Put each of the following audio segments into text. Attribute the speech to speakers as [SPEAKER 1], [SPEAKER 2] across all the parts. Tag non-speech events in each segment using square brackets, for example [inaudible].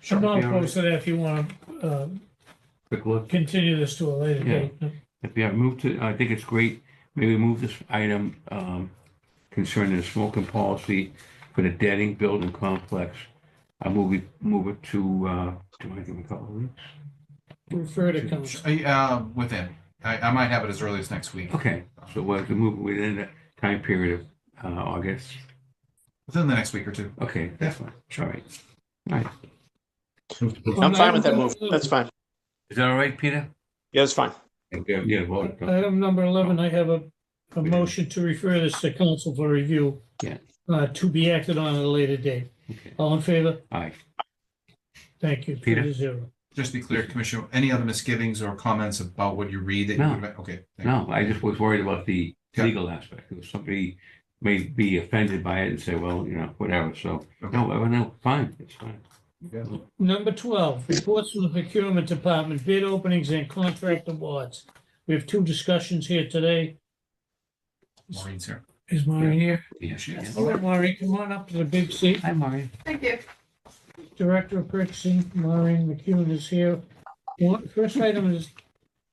[SPEAKER 1] Sure.
[SPEAKER 2] Bob
[SPEAKER 1] Be all right.
[SPEAKER 2] posted that if you want to
[SPEAKER 1] Quick look.
[SPEAKER 2] continue this to a later
[SPEAKER 1] Yeah.
[SPEAKER 2] date.
[SPEAKER 1] If you have moved to, I think it's great, maybe move this item um, concerning the smoking policy for the Deading Building Complex. I move it, move it to, uh, do I give a couple of weeks?
[SPEAKER 2] Refer to council.
[SPEAKER 3] Uh, within. I, I might have it as early as next week,
[SPEAKER 1] Okay, so we'll have to move within the time period of uh, August.
[SPEAKER 3] within the next week or two.
[SPEAKER 1] Okay, that's fine. All right.
[SPEAKER 4] I'm fine with that move. That's fine.
[SPEAKER 1] Is that all right, Peter?
[SPEAKER 4] Yeah, it's fine.
[SPEAKER 1] Yeah, yeah, well,
[SPEAKER 2] Item number 11, I have a, a motion to refer this to council for review.
[SPEAKER 1] Yeah.
[SPEAKER 2] uh, To be acted on at a later date.
[SPEAKER 1] okay.
[SPEAKER 2] All in favor?
[SPEAKER 1] All right.
[SPEAKER 2] Thank you. Three
[SPEAKER 1] Peter?
[SPEAKER 2] to zero.
[SPEAKER 3] Just to be clear, Commissioner, any other misgivings or comments about what you read that
[SPEAKER 1] No.
[SPEAKER 3] you, okay. thank you.
[SPEAKER 1] No, I just was worried about the
[SPEAKER 3] Yeah.
[SPEAKER 1] legal aspect. If Somebody may be offended by it and say, well, you know, whatever. So, no, I- no, fine, it's fine.
[SPEAKER 2] Number 12, reports from the procurement department, bid openings and contract awards. We have two discussions here today.
[SPEAKER 3] Maureen's here.
[SPEAKER 2] Is Maureen here?
[SPEAKER 1] Yes, yes.
[SPEAKER 2] All right, Maureen, come on up to the big seat.
[SPEAKER 1] Hi, Mario.
[SPEAKER 5] Thank you.
[SPEAKER 2] Director of Purchasing, Maureen McEwen is here. One- First item is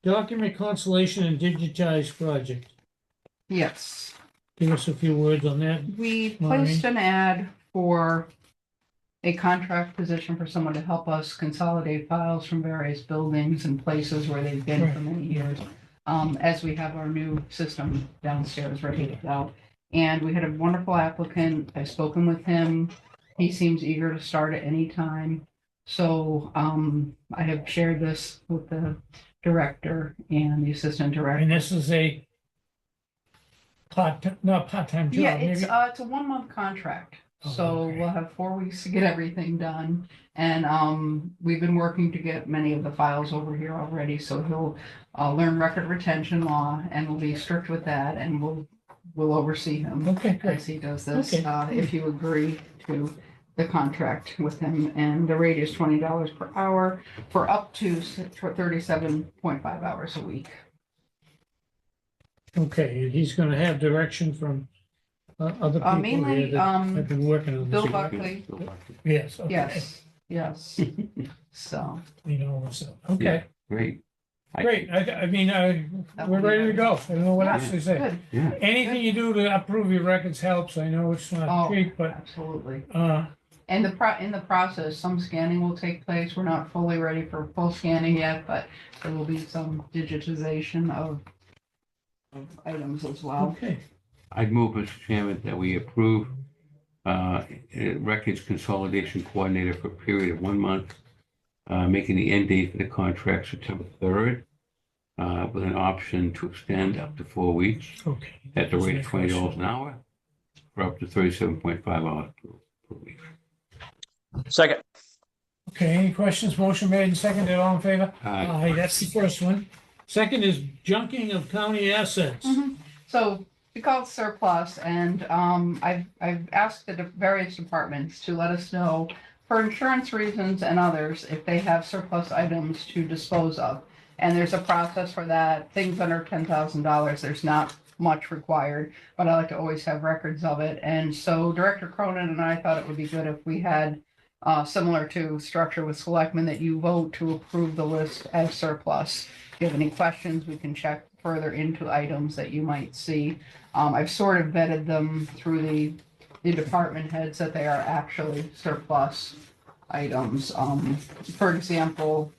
[SPEAKER 2] document consolidation and digitized project.
[SPEAKER 5] Yes,
[SPEAKER 2] Give us a few words on that.
[SPEAKER 5] we
[SPEAKER 2] Maureen?
[SPEAKER 5] placed an ad for a contract position for someone to help us consolidate files from various buildings and places where they've been for many years. Um, as we have our new system downstairs ready to go. And we had a wonderful applicant. I've spoken with him. He seems eager to start at any time. So, um, I have shared this with the director and the assistant director.
[SPEAKER 2] And this is a part, not part-time
[SPEAKER 5] Yeah,
[SPEAKER 2] job,
[SPEAKER 5] it's,
[SPEAKER 2] maybe?
[SPEAKER 5] uh, it's a one-month contract,
[SPEAKER 2] Oh,
[SPEAKER 5] so
[SPEAKER 2] okay.
[SPEAKER 5] we'll have four weeks to get everything done. And, um, we've been working to get many of the files over here already, so he'll, uh, learn record retention law, and we'll be strict with that, and we'll, we'll oversee him
[SPEAKER 2] Okay, great.
[SPEAKER 5] as he does this,
[SPEAKER 2] Okay.
[SPEAKER 5] uh, if you agree to the contract with him, and the rate is twenty dollars per hour for up to thirty-seven point five hours a week.
[SPEAKER 2] Okay, he's going to have direction from uh, other
[SPEAKER 5] Uh,
[SPEAKER 2] people here
[SPEAKER 5] mainly,
[SPEAKER 2] that have
[SPEAKER 5] um,
[SPEAKER 2] been working on this.
[SPEAKER 5] Bill Buckley.
[SPEAKER 2] Yes, okay.
[SPEAKER 5] yes,
[SPEAKER 2] [laughs]
[SPEAKER 5] yes, so.
[SPEAKER 2] You know, so, okay,
[SPEAKER 1] Great. I-
[SPEAKER 2] great. I, I mean, I,
[SPEAKER 5] that
[SPEAKER 2] we're
[SPEAKER 5] will be
[SPEAKER 2] ready to
[SPEAKER 5] nice.
[SPEAKER 2] go. I don't know what else to say.
[SPEAKER 5] Good,
[SPEAKER 1] Yeah,
[SPEAKER 2] Anything you do to improve your records helps. I know it's not
[SPEAKER 5] Oh.
[SPEAKER 2] cheap, but,
[SPEAKER 5] absolutely.
[SPEAKER 2] uh,
[SPEAKER 5] And the pro, in the process, some scanning will take place. We're not fully ready for full scanning yet, but there will be some digitization of of items as well.
[SPEAKER 2] okay.
[SPEAKER 1] I'd move, Mr. Chairman, that we approve uh, records consolidation coordinator for a period of one month, uh, making the end date for the contract September 3rd, uh, with an option to extend up to four weeks.
[SPEAKER 2] Okay.
[SPEAKER 1] at the rate of twenty dollars an hour for up to thirty-seven point five hours per per week.
[SPEAKER 4] Second.
[SPEAKER 2] Okay, any questions? Motion made and seconded, all in favor?
[SPEAKER 1] Uh,
[SPEAKER 2] Aye, that's the first one. Second is junking of county assets.
[SPEAKER 5] Mhm. So we call it surplus and um, I've, I've asked the de- various departments to let us know for insurance reasons and others, if they have surplus items to dispose of. And there's a process for that. Things under ten thousand dollars, there's not much required, but I like to always have records of it. And so Director Cronin and I thought it would be good if we had uh, similar to structure with selectmen, that you vote to approve the list as surplus. If you have any questions, we can check further into items that you might see. Um, I've sort of vetted them through the, the department heads that they are actually surplus items. Um, for example,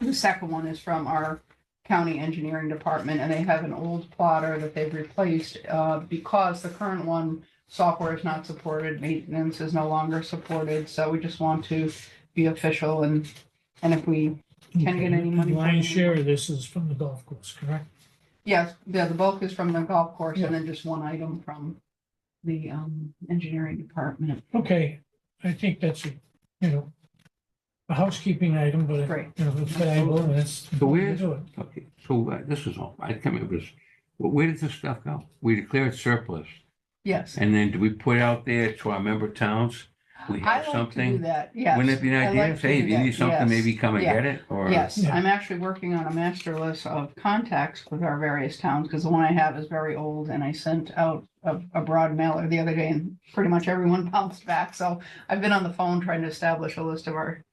[SPEAKER 5] the second one is from our county engineering department and they have an old plotter that they've replaced, uh, because the current one software is not supported, maintenance is no longer supported. So we just want to be official and, and if we Mm-hmm. Can't get any money
[SPEAKER 2] The
[SPEAKER 5] from
[SPEAKER 2] Lion's
[SPEAKER 5] them.
[SPEAKER 2] share of this is from the golf course, correct?
[SPEAKER 5] Yes, yeah, the bulk is from the golf course
[SPEAKER 2] Yeah.
[SPEAKER 5] and then just one item from the um engineering department.
[SPEAKER 2] Okay, I think that's, a, you know, a housekeeping item, but,
[SPEAKER 5] Right.
[SPEAKER 2] you know, it's valuable and it's.
[SPEAKER 1] So where's-
[SPEAKER 2] Do it.
[SPEAKER 1] okay, so uh, this is all, I can't remember this. Well, Where does this stuff go? We declare it surplus,
[SPEAKER 5] Yes.
[SPEAKER 1] and then do we put out there to our member towns? We
[SPEAKER 5] I
[SPEAKER 1] have
[SPEAKER 5] like to do
[SPEAKER 1] something?
[SPEAKER 5] that, yes.
[SPEAKER 1] Wouldn't it be
[SPEAKER 5] I
[SPEAKER 1] an idea,
[SPEAKER 5] like to
[SPEAKER 1] say, if
[SPEAKER 5] do
[SPEAKER 1] you
[SPEAKER 5] that,
[SPEAKER 1] need something,
[SPEAKER 5] yes.
[SPEAKER 1] maybe come and
[SPEAKER 5] Yeah.
[SPEAKER 1] get it, or?
[SPEAKER 5] Yes,
[SPEAKER 2] Yeah.
[SPEAKER 5] I'm actually working on a master list of contacts with our various towns, because the one I have is very old, and I sent out a, a broad [laughs] mailer the other day, and pretty much everyone bounced back, so I've been on the phone trying to establish a list of our